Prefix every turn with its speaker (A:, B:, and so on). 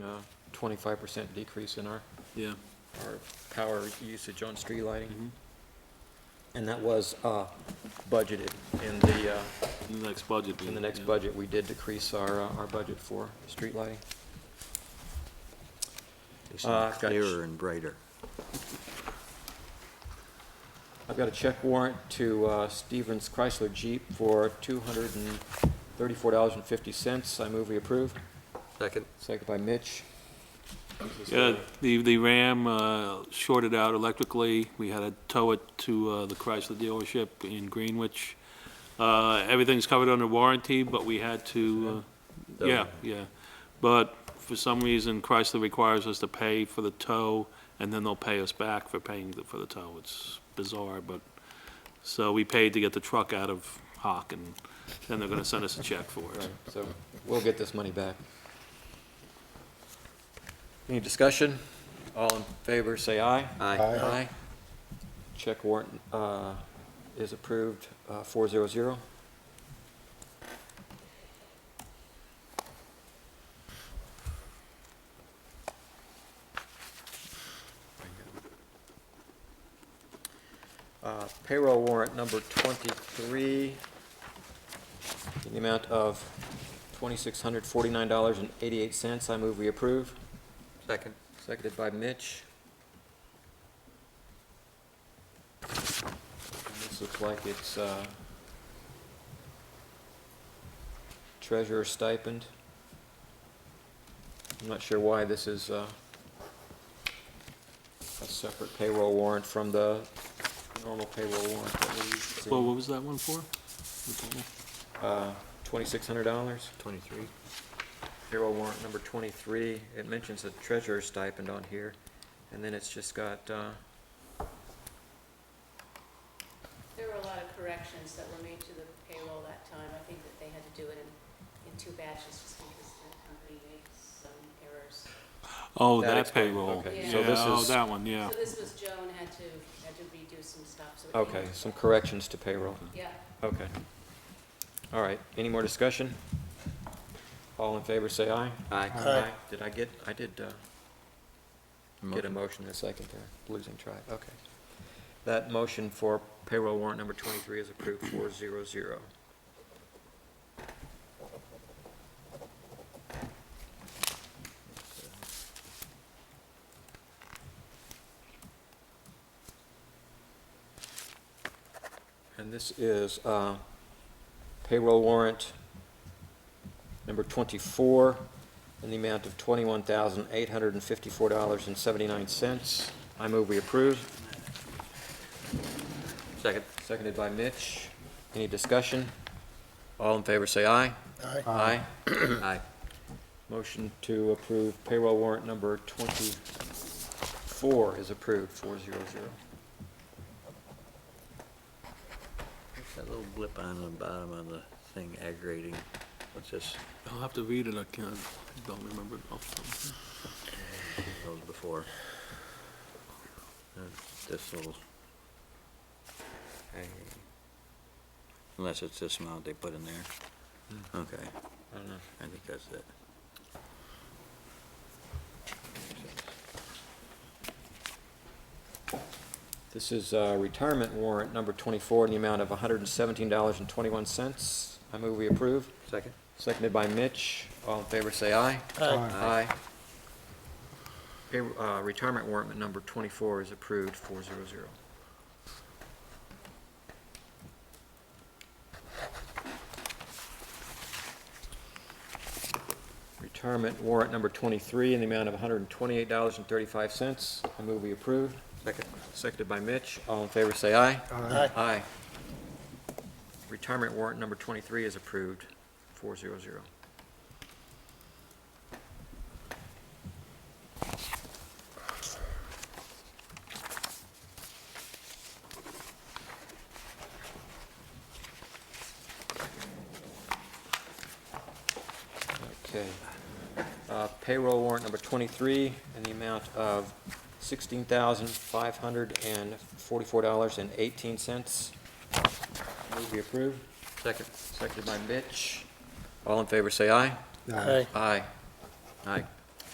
A: twenty-five percent decrease in our,
B: yeah.
A: our power usage on street
B: Mhm.
A: lighting. And that was, uh, budgeted in the, uh,
B: In the next budget.
A: in the
B: yeah.
A: next budget, we did decrease our, uh, our budget for street lighting.
C: It's
A: Uh, I've got-
C: clearer and brighter.
A: I've got a check warrant to uh, Stevens Chrysler Jeep for $234.50. I move we approve.
C: Second.
A: Second by Mitch.
B: Yeah, the, the Ram uh, shorted out electrically. We had to tow it to uh, the Chrysler dealership in Greenwich. Uh, Everything's covered under warranty, but we had to, uh, yeah, yeah. But for some reason Chrysler requires us to pay for the tow, and then they'll pay us back for paying the- for the tow. It's bizarre, but, so we paid to get the truck out of Hock, and then they're gonna send us a check for it.
A: Right, So we'll get this money back. Any discussion? All in favor, say aye.
C: Aye.
A: Aye. Check warrant uh, is approved, uh, 400. Uh, Payroll warrant number 23, in the amount of $2,649.88. I move we approve.
C: Second.
A: Seconded by Mitch. And This looks like it's uh, treasurer stipend. I'm not sure why this is uh, a separate payroll warrant from the normal payroll warrant that we
B: Well,
A: see.
B: what was that one for?
A: Uh, $2,600.
C: Twenty-three.
A: Payroll warrant number 23, it mentions a treasurer stipend on here, and then it's just got, uh,
D: There were a lot of corrections that were made to the payroll that time. I think that they had to do it in, in two batches just because the company made some errors.
B: Oh,
A: That
B: that
A: explains-
B: payroll.
A: okay,
D: so
B: Yeah,
D: this
B: oh,
A: is-
B: that one, yeah.
D: So this was Joan had to, had to redo some stuff, so. it came
A: okay,
D: out-
A: some corrections to payroll.
D: Yeah.
A: Okay. All right, any more discussion? All in favor, say aye.
C: Aye.
A: Aye. Did I get, I did uh, get a motion in a second there, losing track, okay. That motion for payroll warrant number 23 is approved 400. And this is uh, payroll warrant number 24 in the amount of $21,854.79. I move we approve.
C: Second.
A: Seconded by Mitch. Any discussion? All in favor, say aye. Aye.
C: Aye.
A: Motion to approve payroll warrant number 24 is approved, 400.
C: What's that little blip on the bottom of the thing aggravating? What's this?
B: I'll have to read it, I can't, I don't remember it off the top of my head.
C: Those before. Uh, This little. Hey. Unless it's this amount they put in there. Okay,
A: I don't know.
C: I think that's it.
A: This is uh, retirement warrant number 24 in the amount of $117.21. I move we approve.
C: Second?
A: Seconded by Mitch. All in favor, say aye.
C: Aye.
A: Pay- uh, Retirement warrant number 24 is approved, 400. Retirement warrant number 23 in the amount of $128.35. I move we approve.
C: Second.
A: Seconded by Mitch. All in favor, say aye.
E: Aye.
A: Aye. Retirement warrant number 23 is approved, 400. Okay. Uh, Payroll warrant number 23 in the amount of $16,544.18. Move be approved.
C: Second.
A: Seconded by Mitch. All in favor, say aye.
E: Aye.
A: Aye. Aye.